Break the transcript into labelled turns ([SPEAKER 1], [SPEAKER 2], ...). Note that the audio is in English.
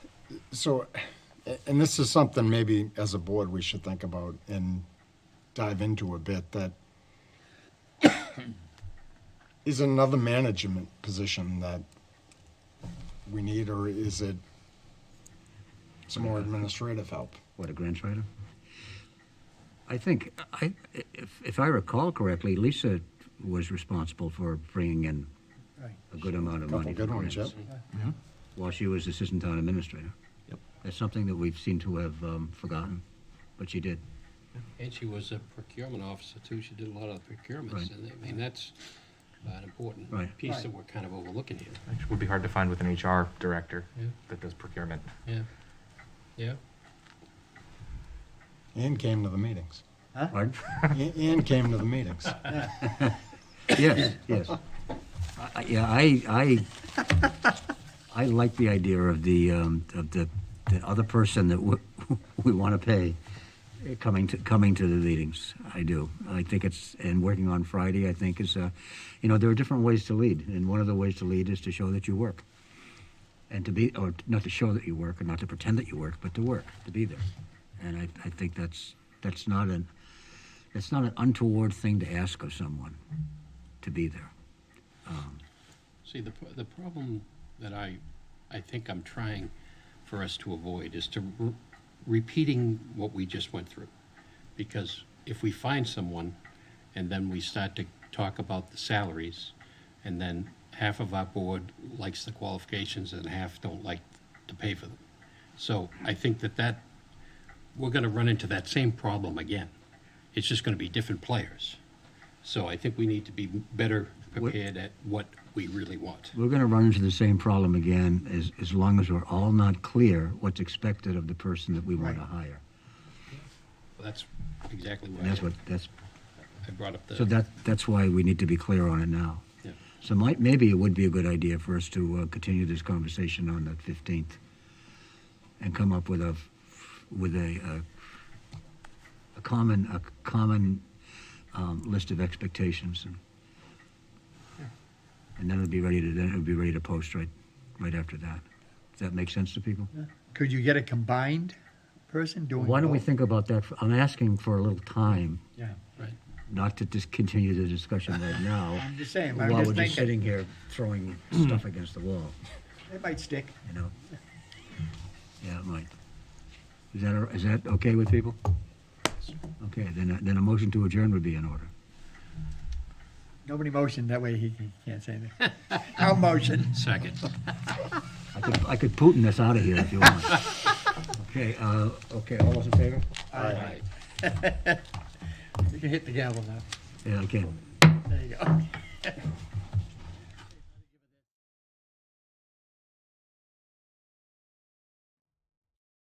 [SPEAKER 1] So, a- and this is something maybe as a board we should think about and dive into a bit that is it another management position that we need, or is it some more administrative help?
[SPEAKER 2] What, a grant writer? I think, I, if, if I recall correctly, Lisa was responsible for bringing in
[SPEAKER 3] Right.
[SPEAKER 2] a good amount of
[SPEAKER 1] Couple
[SPEAKER 2] money.
[SPEAKER 1] good
[SPEAKER 2] for
[SPEAKER 1] ones, yep.
[SPEAKER 2] grants While she was assistant town administrator.
[SPEAKER 4] Yep.
[SPEAKER 2] That's something that we've seemed to have, um, forgotten, but she did.
[SPEAKER 5] And she was a procurement officer too, she did a lot of the
[SPEAKER 2] Right.
[SPEAKER 5] procurements, and I mean, that's an important
[SPEAKER 2] Right.
[SPEAKER 5] piece that we're kind of overlooking here.
[SPEAKER 4] Which would be hard to find with an HR director
[SPEAKER 5] Yeah.
[SPEAKER 4] that does procurement.
[SPEAKER 5] Yeah, yeah,
[SPEAKER 1] Ann came to the meetings.
[SPEAKER 2] Pardon?
[SPEAKER 1] A- Ann came to the meetings.
[SPEAKER 2] Yes, yes. I- I- Yeah, I, I, I like the idea of the, um, of the, the other person that we, we want to pay eh, coming to, coming to the meetings. I do. I think it's, and working on Friday, I think is, uh, you know, there are different ways to lead. And one of the ways to lead is to show that you work. And to be, or not to show that you work, or not to pretend that you work, but to work, to be there. And I, I think that's, that's not an, that's not an untoward thing to ask of someone to be there.
[SPEAKER 5] see, the, pro- the problem that I, I think I'm trying for us to avoid is to re- repeating what we just went through. Because if we find someone, and then we start to talk about the salaries, and then half of our board likes the qualifications and half don't like to pay for them. So I think that that we're going to run into that same problem again. It's just going to be different players. So I think we need to be better prepared at what we really want.
[SPEAKER 2] We're going to run into the same problem again as, as long as we're all not clear what's expected of the person that we want to
[SPEAKER 3] Right.
[SPEAKER 2] hire.
[SPEAKER 5] That's exactly
[SPEAKER 2] And that's
[SPEAKER 5] why
[SPEAKER 2] what, that's,
[SPEAKER 5] I brought up the.
[SPEAKER 2] so that, that's why we need to be clear on it now.
[SPEAKER 5] Yeah.
[SPEAKER 2] So might, maybe it would be a good idea for us to uh, continue this conversation on the 15th and come up with a, with a, uh, a common, a common um, list of expectations. and- And then it'll be ready to, then it'll be ready to post right, right after that. Does that make sense to people?
[SPEAKER 3] Could you get a combined person doing?
[SPEAKER 2] Why don't we
[SPEAKER 3] both?
[SPEAKER 2] think about that? for- I'm asking for a little time,
[SPEAKER 3] Yeah,
[SPEAKER 5] Right.
[SPEAKER 2] not to just continue the discussion right now.
[SPEAKER 3] I'm just saying, I'm
[SPEAKER 2] While
[SPEAKER 3] just
[SPEAKER 2] we're just
[SPEAKER 3] thinking,
[SPEAKER 2] sitting here throwing stuff against the wall,
[SPEAKER 3] it might stick.
[SPEAKER 2] you know? Yeah, it might. Is that, is that okay with people? Okay, then, then a motion to adjourn would be in order.
[SPEAKER 3] Nobody motion, that way he can- can't say that. I'll motion.
[SPEAKER 5] Second.
[SPEAKER 2] I could, I could Putin this out of here if you want. Okay, uh, okay, all those in favor?
[SPEAKER 5] Right.
[SPEAKER 3] You can hit the gavel now.
[SPEAKER 2] Yeah, okay.
[SPEAKER 3] There you go.